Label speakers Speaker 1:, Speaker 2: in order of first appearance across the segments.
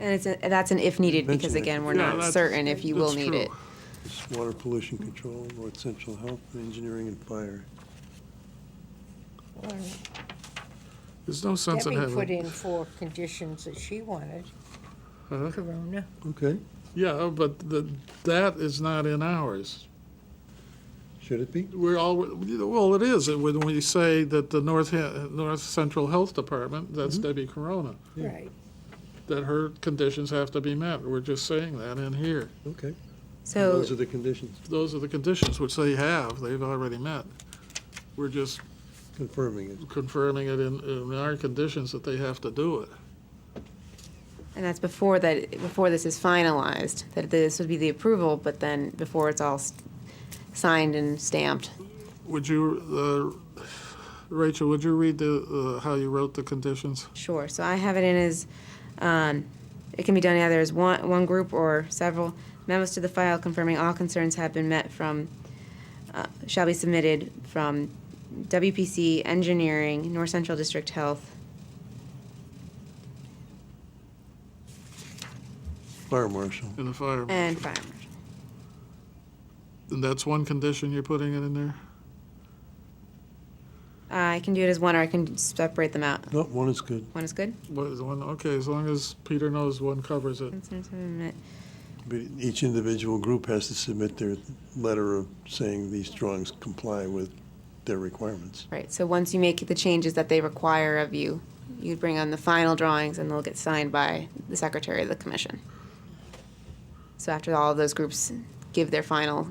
Speaker 1: And it's, a- that's an if needed, because
Speaker 2: Mention it.
Speaker 1: again, we're
Speaker 2: Yeah,
Speaker 1: not
Speaker 2: that's-
Speaker 1: certain if you will
Speaker 2: that's
Speaker 1: need
Speaker 2: true.
Speaker 1: it.
Speaker 2: It's water pollution control, North Central Health, Engineering and Fire.
Speaker 3: There's no sense in
Speaker 4: Debbie put
Speaker 3: having,
Speaker 4: in four conditions that she wanted.
Speaker 3: Huh?
Speaker 4: Corona.
Speaker 2: Okay,
Speaker 3: yeah, but the, that is not in ours.
Speaker 2: should it be?
Speaker 3: We're all, well, it is, when we say that the North, Ha- North Central Health Department, that's Debbie Corona,
Speaker 2: Yeah.
Speaker 4: Right.
Speaker 3: that her conditions have to be met. We're just saying that in here.
Speaker 2: Okay,
Speaker 1: So,
Speaker 2: those are the conditions,
Speaker 3: Those are the conditions which they have, they've already met. We're just
Speaker 2: confirming it.
Speaker 3: confirming it in, in our conditions that they have to do it.
Speaker 1: and that's before that, before this is finalized, that this would be the approval, but then before it's all s- signed and stamped.
Speaker 3: Would you, uh, Rachel, would you read the, uh, how you wrote the conditions?
Speaker 1: Sure, so I have it in as, um, it can be done either as one, one group or several. Memos to the file confirming all concerns have been met from, uh, shall be submitted from WPC Engineering, North Central District Health,
Speaker 2: Fire marshal,
Speaker 3: In the fire.
Speaker 4: Uh,
Speaker 1: and Fire Marshal.
Speaker 3: And that's one condition you're putting it in there?
Speaker 1: I can do it as one, or I can separate them out.
Speaker 2: no, one is good,
Speaker 1: One is good?
Speaker 3: What is one, okay, as long as Peter knows one covers it.
Speaker 1: Concerns have been met.
Speaker 2: but each individual group has to submit their letter of saying these drawings comply with their requirements.
Speaker 1: Right, so once you make the changes that they require of you, you bring on the final drawings and they'll get signed by the secretary of the commission. So after all of those groups give their final,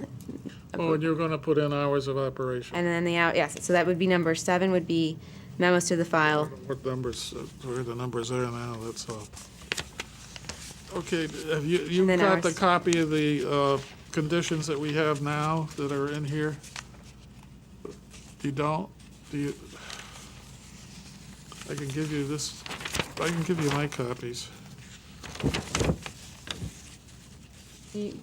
Speaker 3: Oh, and you're gonna put in hours of operation.
Speaker 1: and then the out, yes, so that would be number seven would be memos to the file.
Speaker 3: What numbers, uh, where the numbers are now, that's all. Okay, have you, you
Speaker 1: then
Speaker 3: got the
Speaker 1: ours.
Speaker 3: copy of the, uh, conditions that we have now that are in here? You don't? Do you? I can give you this, I can give you my copies.
Speaker 1: You-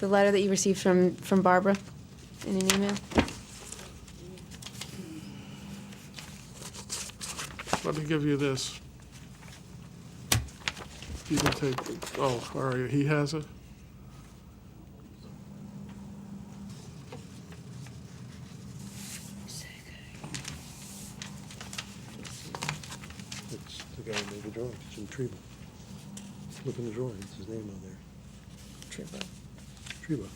Speaker 1: The letter that you received from, from Barbara in an email?
Speaker 3: Let me give you this. You can take, oh, all right, he has it?
Speaker 2: That's the guy who made the drawings, Jim Treba. Look in the drawings, his name on there,
Speaker 4: Triple.
Speaker 2: Treba.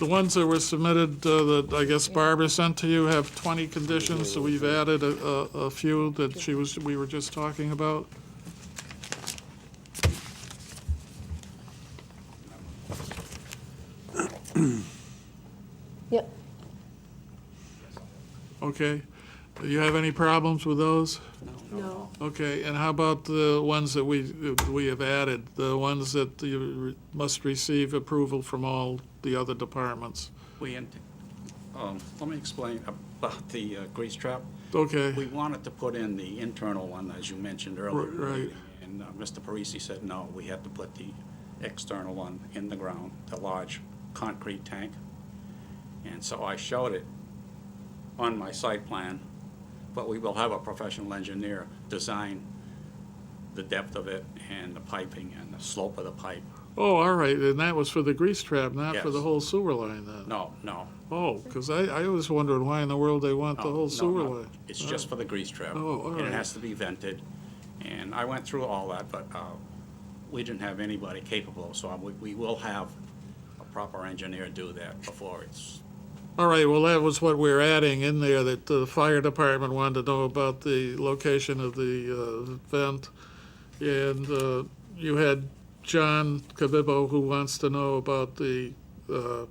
Speaker 3: The ones that were submitted, uh, that I guess Barbara sent to you have 20 conditions, so we've added a, a a few that she was, we were just talking about.
Speaker 1: Yep.
Speaker 3: Okay. Do you have any problems with those?
Speaker 1: No.
Speaker 3: Okay, and how about the ones that we, we have added? The ones that you re- must receive approval from all the other departments?
Speaker 5: We, int- um, let me explain about the uh, grease trap.
Speaker 3: Okay.
Speaker 5: We wanted to put in the internal one, as you mentioned earlier. in the
Speaker 3: Right.
Speaker 5: meeting, And uh, Mr. Parisi said, no, we had to put the external one in the ground, the large concrete tank. And so I showed it on my site plan, but we will have a professional engineer design the depth of it and the piping and the slope of the pipe.
Speaker 3: Oh, all right, and that was for the grease trap, not for the
Speaker 5: Yes.
Speaker 3: whole sewer line then?
Speaker 5: No, no.
Speaker 3: Oh, because I, I was wondering why in the world they want the
Speaker 5: Oh, No,
Speaker 3: whole
Speaker 5: no,
Speaker 3: sewer
Speaker 5: no.
Speaker 3: line.
Speaker 5: It's just for the grease trap.
Speaker 3: Oh, all
Speaker 5: And
Speaker 3: right.
Speaker 5: it has to be vented. And I went through all that, but uh, we didn't have anybody capable, so I- we- we will have a proper engineer do that before it's,
Speaker 3: All right, well, that was what we were adding in there, that the fire department wanted to know about the location of the uh, vent. And uh, you had John Kabibbo who wants to know about the uh,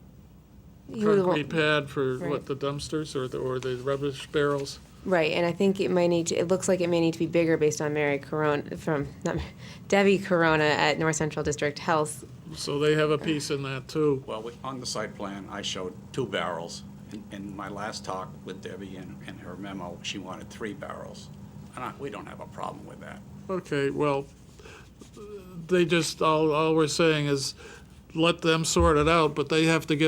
Speaker 3: concrete pad for,
Speaker 1: Right.
Speaker 3: what, the dumpsters or the, or the rubbish barrels?
Speaker 1: Right, and I think it might need to, it looks like it may need to be bigger based on Mary Corona, from, not, Mary- Debbie Corona at North Central District Health.
Speaker 3: So they have a piece in that too.
Speaker 5: well, we- on the site plan, I showed two barrels. In- In my last talk with Debbie and and her memo, she wanted three barrels. And I- we don't have a problem with that.
Speaker 3: Okay, well, they just, all, all we're saying is let them sort it out, but they have to get